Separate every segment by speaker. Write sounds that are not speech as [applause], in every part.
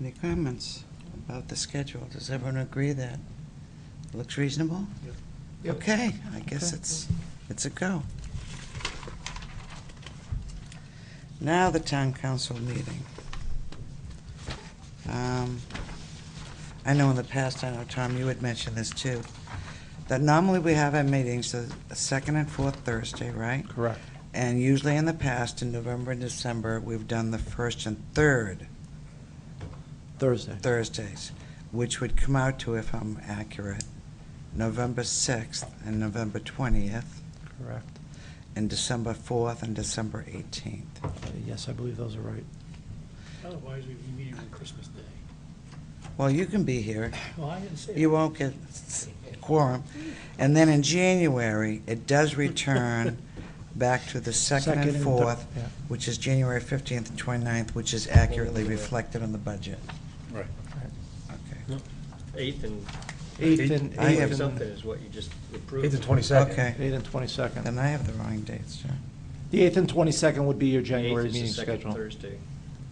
Speaker 1: Any comments about the schedule? Does everyone agree that it looks reasonable? Okay, I guess it's, it's a go. Now the town council meeting. Um, I know in the past, I know, Tom, you had mentioned this too, that normally we have our meetings the second and fourth Thursday, right?
Speaker 2: Correct.
Speaker 1: And usually in the past, in November and December, we've done the first and third
Speaker 2: Thursday.
Speaker 1: Thursdays, which would come out to, if I'm accurate, November 6th and November 20th,
Speaker 2: Correct.
Speaker 1: and December 4th and December 18th.
Speaker 2: Uh, Yes, I believe those are right.
Speaker 3: Otherwise, we'd be meeting on Christmas Day.
Speaker 1: Well, you can be here.
Speaker 3: Well, I didn't say
Speaker 1: You
Speaker 3: that.
Speaker 1: won't get s- quorum. And then in January, it does return back to the second and
Speaker 2: thir-
Speaker 1: fourth,
Speaker 2: yeah.
Speaker 1: which is January 15th and 29th, which is accurately reflected on the budget.
Speaker 4: Right.
Speaker 1: Okay.
Speaker 5: Eighth and.
Speaker 2: Eighth and-
Speaker 1: I
Speaker 5: Eighth
Speaker 1: have-
Speaker 5: or something is what you just approved.
Speaker 4: Eighth and twenty-second.
Speaker 1: Okay.
Speaker 2: Eighth and 22nd.
Speaker 1: Then I have the wrong dates, John.
Speaker 2: The 8th and 22nd would be your January
Speaker 5: Eighth is
Speaker 2: meeting
Speaker 5: the second
Speaker 2: schedule.
Speaker 5: Thursday.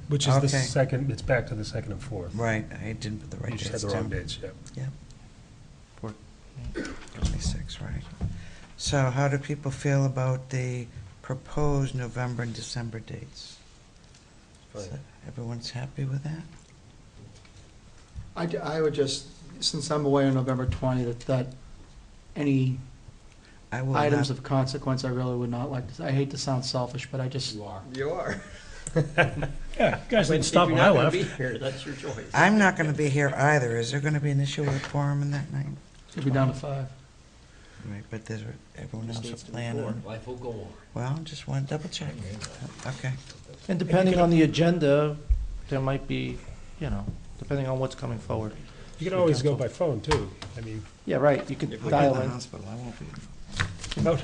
Speaker 4: Which is the
Speaker 1: Okay.
Speaker 4: second, it's back to the second and fourth.
Speaker 1: Right, I didn't put the right
Speaker 4: You
Speaker 1: dates
Speaker 4: just
Speaker 1: down.
Speaker 4: had the wrong dates, yeah.
Speaker 2: For-
Speaker 1: 26, right. So how do people feel about the proposed November and December dates?
Speaker 4: Fine.
Speaker 1: So Everyone's happy with that?
Speaker 6: I, I would just, since I'm away on November 20th, that any
Speaker 1: I will
Speaker 6: items
Speaker 1: not,
Speaker 6: of consequence, I really would not like to, I hate to sound selfish, but I just. You are.
Speaker 5: You are.
Speaker 3: Yeah, you guys
Speaker 5: But
Speaker 3: didn't
Speaker 5: if
Speaker 3: stop
Speaker 5: you're
Speaker 3: when I
Speaker 5: not gonna
Speaker 3: left.
Speaker 5: be here, That's your choice.
Speaker 1: I'm not going to be here either. Is there going to be an issue with a quorum in that night?
Speaker 6: It'd be down to five.
Speaker 1: Right, but there's, everyone
Speaker 5: This
Speaker 1: else
Speaker 5: needs
Speaker 1: is
Speaker 5: to be
Speaker 1: planning.
Speaker 5: forward.
Speaker 4: Life will go on.
Speaker 1: Well, just want to double check. Okay.
Speaker 2: And depending on the agenda, there might be, you know, depending on what's coming forward.
Speaker 4: You can always go by phone, too. I mean,
Speaker 2: Yeah, right, you could
Speaker 5: If we
Speaker 2: dial in.
Speaker 1: hospital, I won't be.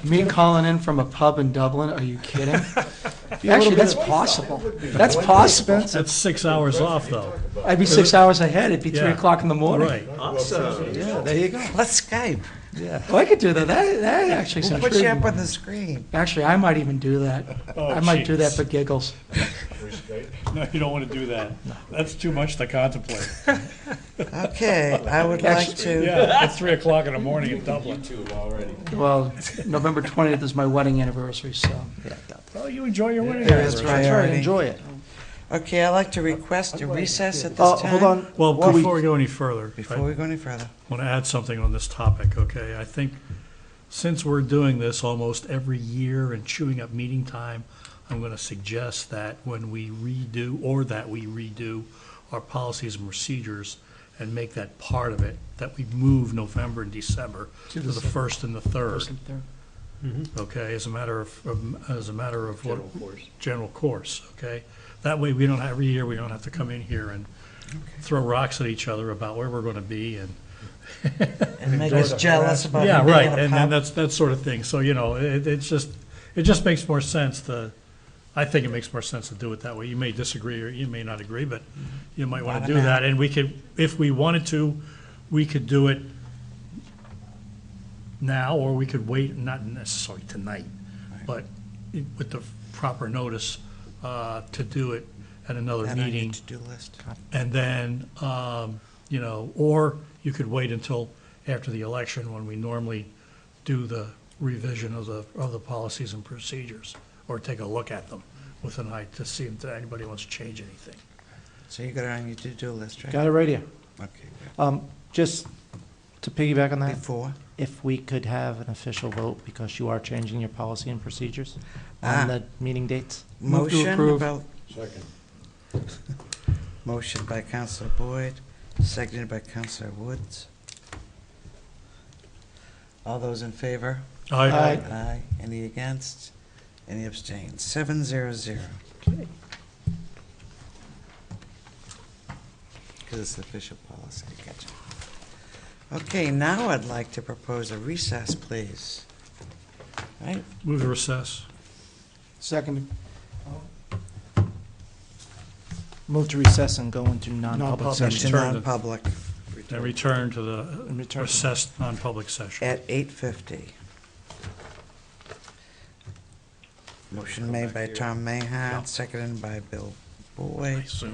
Speaker 6: Me calling in from a pub in Dublin, are you
Speaker 1: [laughs]
Speaker 6: kidding?
Speaker 2: Be a little
Speaker 6: Actually, that's
Speaker 2: bit-
Speaker 6: possible. That's possible.
Speaker 3: That's six hours off, though.
Speaker 6: I'd be six hours ahead, it'd be three
Speaker 3: Yeah.
Speaker 6: o'clock in the morning.
Speaker 3: Right.
Speaker 5: Awesome.
Speaker 2: Yeah, there you go,
Speaker 1: Let's Skype.
Speaker 2: yeah.
Speaker 6: Oh, I could do that, that, that actually
Speaker 1: We'll
Speaker 6: sounds
Speaker 1: put you up
Speaker 6: true.
Speaker 1: on the screen.
Speaker 6: Actually, I might even do that.
Speaker 3: Oh,
Speaker 6: I might do that
Speaker 3: jeez.
Speaker 6: for giggles.
Speaker 3: No, you don't want to do that. That's too much to contemplate. [laughs]
Speaker 1: Okay, I would like to.
Speaker 3: Yeah, it's three o'clock in the morning in Dublin.
Speaker 6: Well, November 20th is my wedding anniversary, so.
Speaker 2: Yeah, that-
Speaker 3: Well, Oh, you enjoy your wedding.
Speaker 1: There is
Speaker 3: anniversary.
Speaker 2: That's right,
Speaker 1: priority.
Speaker 2: enjoy it.
Speaker 1: Okay, I'd like to request a recess at
Speaker 2: Oh,
Speaker 1: this time.
Speaker 2: hold on.
Speaker 3: Well,
Speaker 2: What-
Speaker 3: before we go any further, I
Speaker 1: Before we go any further.
Speaker 3: want to add something on this topic, okay? I think since we're doing this almost every year and chewing up meeting time, I'm going to suggest that when we redo, or that we redo our policies and procedures and make that part of it, that we move November and December to the first and the third,
Speaker 6: First and third.
Speaker 3: okay? As a matter of- of, as a matter of what,
Speaker 5: General course.
Speaker 3: general course, okay? That way, we don't, every year, we don't have to come in here and throw rocks at each other about where we're going to be and
Speaker 1: And make us jealous about
Speaker 3: Yeah,
Speaker 1: him being
Speaker 3: right,
Speaker 1: in a
Speaker 3: and then
Speaker 1: pub.
Speaker 3: that's, that sort of thing, so, you know, it, it's just, it just makes more sense to, I think it makes more sense to do it that way, you may disagree, or you may not agree, but you might wanna do
Speaker 1: Bottom out.
Speaker 3: that, and we could, if we wanted to, we could do it now, or we could wait, not necessarily tonight, but it- with the proper notice, uh, to do it at another
Speaker 1: That I
Speaker 3: meeting.
Speaker 1: need to-do list.
Speaker 3: And then, um, you know, or you could wait until after the election when we normally do the revision of the, of the policies and procedures, or take a look at them with an eye to see if anybody wants to change anything.
Speaker 1: So you got it on your to-do list, right?
Speaker 2: Got it right here.
Speaker 1: Okay, good.
Speaker 2: Um, Just to piggyback on that,
Speaker 1: Before,
Speaker 2: if we could have an official vote, because you are changing your policy and procedures
Speaker 1: Ah.
Speaker 2: on the meeting dates.
Speaker 6: Move to
Speaker 1: motion
Speaker 6: approve.
Speaker 1: about. [laughs] Motion by Counselor Boyd, seconded by Counselor Woods. All those in favor?
Speaker 2: Aye.
Speaker 1: Aye. Any against? Any abstained? Seven zero zero. Because it's the official policy, gotcha. Okay, now I'd like to propose a recess, please. Right,
Speaker 3: Move to recess.
Speaker 6: Second.
Speaker 2: Move to recess and go into non-public
Speaker 6: Non-public.
Speaker 2: session.
Speaker 1: into
Speaker 3: turn to-
Speaker 1: non-public
Speaker 3: And return to the
Speaker 2: And return to-
Speaker 3: recessed non-public session.
Speaker 1: at eight fifty. Motion made by Tom Mahon, seconded by Bill Boyd.
Speaker 3: So-